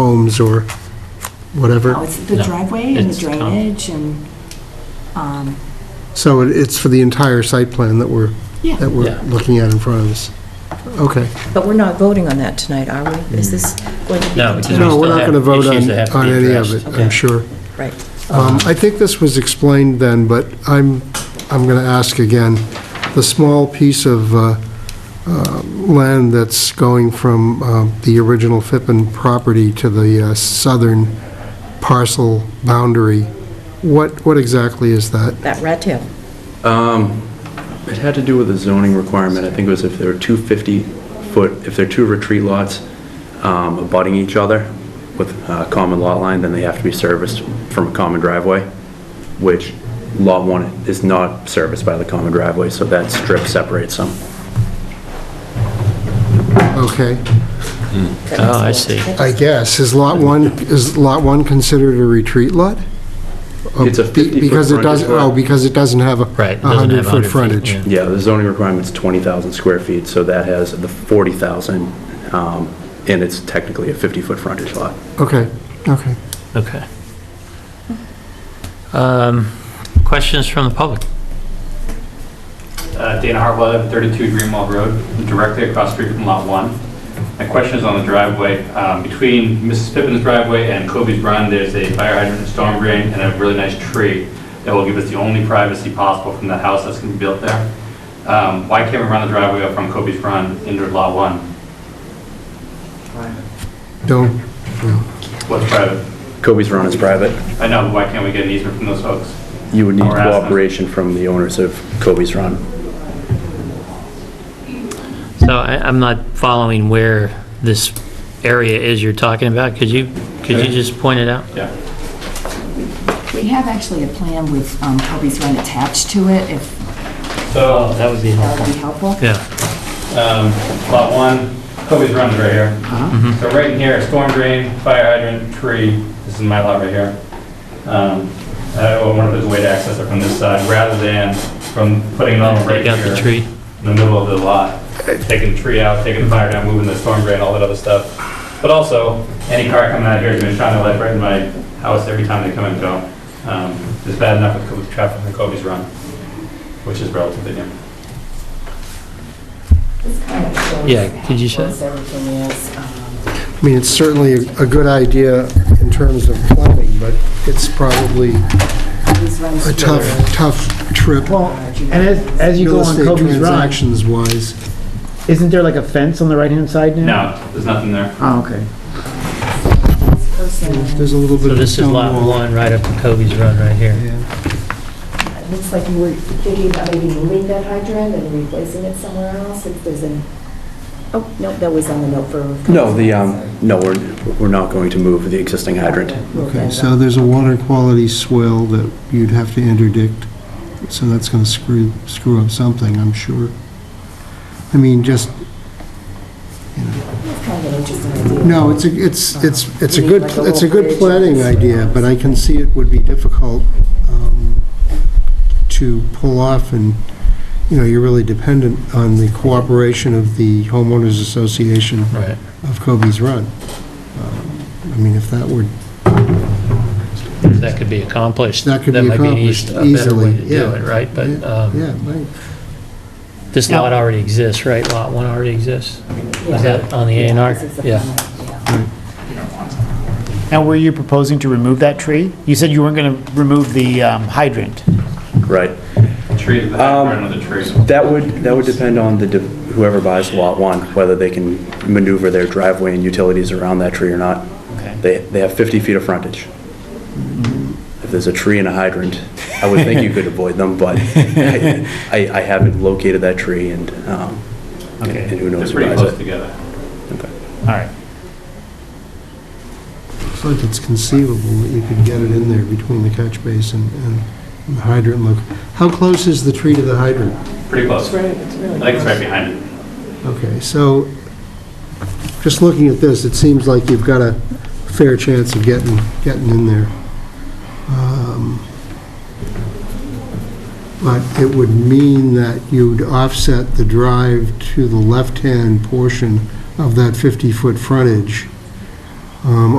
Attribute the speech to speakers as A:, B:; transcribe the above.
A: homes or
B: No,
A: whatever.
B: Oh, it's the
C: No,
B: driveway and the
C: it's town.
B: drainage and, um,
A: So it- it's for the entire site plan that we're,
B: yeah,
A: that we're
C: Yeah.
A: looking at in front of us. Okay.
D: But we're not voting on that tonight, are we? Is this going to be?
C: No, it's
D: continued?
C: we
A: No, we're
C: still
A: not going
C: have
A: to vote
C: issues that have
A: on,
C: to
A: on
C: be
A: any of
C: addressed.
A: it, I'm
D: Okay.
A: sure.
D: Right.
A: Um, I think this was explained then, but I'm, I'm going to ask again. The small piece of uh, uh, land that's going from um, the original Fippen property to the uh, southern parcel boundary, what, what exactly is that?
D: That rat tail.
E: It had to do with a zoning requirement, I think it was if there were two 50-foot, if there are two retreat lots um, abutting each other with a common lot line, then they have to be serviced from a common driveway, which Lot 1 is not serviced by the common driveway, so that strip separates them.
A: Okay,
D: That
C: Oh, I
D: makes
C: see.
A: I guess, is Lot 1, is Lot 1 considered a retreat lot? Oh,
E: It's a
A: Be-
E: 50-foot
A: Because it doesn't,
E: frontage lot.
A: oh, because it doesn't have a
C: Right, it doesn't have
A: 100-foot
C: 100 feet,
A: frontage.
C: yeah.
E: Yeah, the zoning requirement's 20,000 square feet, so that has the 40,000, um, and it's technically a 50-foot frontage lot.
A: Okay, okay.
C: Okay. Um, Questions from the public?
F: Uh, Dana Hartwell, 32 Greenwald Road, directly across the street from Lot 1. My question is on the driveway. Um, Between Mrs. Pippin's driveway and Kobe's Run, there's a fire hydrant, storm drain, and a really nice tree that will give us the only privacy possible from the house that's going to be built there. Um, Why can't we run the driveway up from Kobe's Run into Lot 1?
A: Don't,
F: What's private?
E: Kobe's Run is private.
F: I know, but why can't we get an easement from those folks?
E: You would need
F: Or ask them.
E: cooperation from the owners of Kobe's Run.
C: So I- I'm not following where this area is you're talking about. Could you, could you just point it out?
F: Yeah.
B: we have actually a plan with um, Kobe's Run attached to it, if
F: So
C: That would be
B: that would
C: helpful.
B: be helpful.
C: Yeah,
F: um, Lot 1, Kobe's Run is right here.
C: Uh-huh.
F: So right in here, storm drain, fire hydrant, tree, this is my lot right here. Um, I wonder if there's a way to access it from this side, rather than from putting it all right
C: take out the
F: here
C: tree.
F: in the middle of the lot, taking the tree out, taking the fire down, moving the storm drain, all that other stuff. But also, any car coming out here is going to shine their light right in my house every time they come and go. Um, It's bad enough with Kobe's traffic and Kobe's Run, which is relatively new.
B: This kind of shows
C: Yeah, could you
B: how
C: show-
B: close Everything is, um,
A: I mean, it's certainly a a good idea in terms of planning, but it's probably
B: Kobe's Run's
A: a tough,
B: really
A: tough trip.
G: Well, and as, as you go
A: Real
G: on
A: estate
G: Kobe's Run,
A: transactions wise.
G: isn't there like a fence on the right-hand side now?
F: No, there's nothing there.
G: Oh, okay.
B: close and
A: There's a little bit
C: So
A: of a
C: this is
A: stone
C: lot
A: wall.
C: one, right up to Kobe's Run right here.
A: Yeah.
B: It looks like you were thinking about maybe moving that hydrant and replacing it somewhere else, if there's an, oh, no, that was on the note for.
E: No, the, um, no, we're, we're not going to move the existing hydrant.
B: Move
A: Okay,
B: that
A: so
B: up.
A: there's a water quality swell that you'd have to interdict, so that's going to screw, screw up something, I'm sure. I mean, just,
B: It's kind of an interesting idea.
A: no, it's, a it's, it's, it's a
B: Uh-huh. You
A: good,
B: need like a
A: it's a
B: little
A: good
B: bridge
A: planning
B: and-
A: idea, but I can see it would be difficult um, to pull off, and, you know, you're really dependent on the cooperation of the homeowners association
C: Right.
A: of Kobe's Run. Um, I mean, if that were
C: That could be accomplished.
A: That could be
C: might an eas-
A: accomplished
C: a better way
A: easily,
C: to do
A: yeah.
C: it, right? But
A: Yeah,
C: um,
A: Yeah, right.
C: this lot already exists, right? Lot one already exists? Is that on the A and R?
B: This is the
C: Yeah.
B: final, yeah.
G: Now, were you proposing to remove that tree? You said you weren't going to remove the um, hydrant.
E: Right.
F: Tree, the
E: Um,
F: background of the tree.
E: That would, that would depend on the, de- whoever buys Lot 1, whether they can maneuver their driveway and utilities around that tree or not.
G: Okay.
E: They, they have 50 feet of frontage. If there's a tree and a hydrant, I would think you could avoid them, but I, I haven't located that tree and, um, and
G: Okay.
E: and who
F: They're
E: knows who
F: pretty
E: buys
F: close
E: it.
F: together.
G: All right.
A: It's like it's conceivable that you could get it in there between the catch basin and and the hydrant look. How close is the tree to the hydrant?
F: Pretty close.
B: It's right, it's really.
F: I think it's
B: close.
F: right behind it.
A: Okay, so, just looking at this, it seems like you've got a fair chance of getting, getting in there. Um, But it would mean that you'd offset the drive to the left-hand portion of that 50-foot frontage um,